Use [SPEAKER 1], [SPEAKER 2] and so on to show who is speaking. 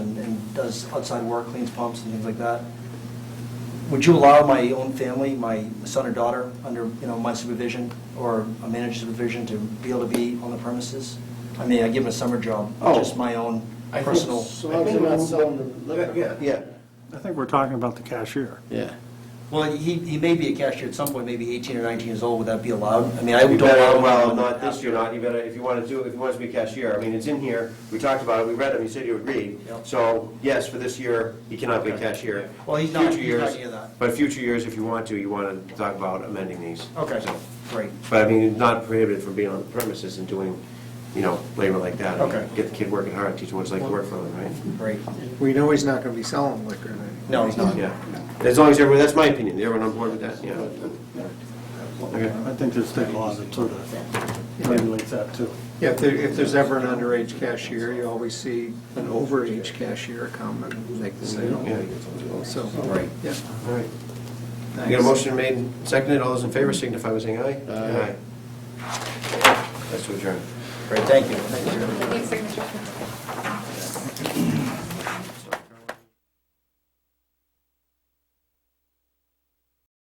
[SPEAKER 1] does outside work, cleans pumps and things like that. Would you allow my own family, my son or daughter, under, you know, my supervision or a manager's supervision to be able to be on the premises? I mean, I give them a summer job,
[SPEAKER 2] Oh.
[SPEAKER 1] just my own
[SPEAKER 2] I think
[SPEAKER 1] personal.
[SPEAKER 2] so.
[SPEAKER 3] So long as you're not selling the liquor.
[SPEAKER 2] Yeah,
[SPEAKER 4] I think we're talking about the cashier.
[SPEAKER 2] yeah.
[SPEAKER 1] Well, he, he may be a cashier at some point, maybe 18 or 19 years old, would that be allowed? I mean, I
[SPEAKER 5] You
[SPEAKER 1] don't
[SPEAKER 5] better,
[SPEAKER 1] allow
[SPEAKER 5] well,
[SPEAKER 1] him.
[SPEAKER 5] not this year, not, you better, if you want to do, if you want to be a cashier, I mean, it's in here, we talked about it, we read it, you said you agreed.
[SPEAKER 1] Yep.
[SPEAKER 5] So, yes, for this year, you cannot be a cashier.
[SPEAKER 1] Well, he's not- he's not
[SPEAKER 5] Future years-
[SPEAKER 1] near that.
[SPEAKER 5] But future years, if you want to, you want to talk about amending these.
[SPEAKER 1] Okay,
[SPEAKER 5] So,
[SPEAKER 1] great.
[SPEAKER 5] But I mean, it's not prohibited from being on the premises and doing, you know, labor like that. I mean,
[SPEAKER 1] Okay.
[SPEAKER 5] Get the kid working hard, teach him what it's like to work for them, right?
[SPEAKER 1] Great.
[SPEAKER 6] We know he's not gonna be selling liquor then.
[SPEAKER 1] No, he's not.
[SPEAKER 5] Yeah, as long as everyone, that's my opinion, everyone on board with that, yeah. Okay.
[SPEAKER 4] I think there's state law that sort of regulates that too.
[SPEAKER 6] Yeah, if there, if there's ever an underage cashier, you always see an overage cashier come and make the sale. So,
[SPEAKER 1] Right.
[SPEAKER 6] yeah,
[SPEAKER 5] All right.
[SPEAKER 6] thanks.
[SPEAKER 5] You got a motion made, and seconded, all those in favor signify by saying aye. Aye. That's to adjourn.
[SPEAKER 1] Great, thank you.
[SPEAKER 7] I need signature.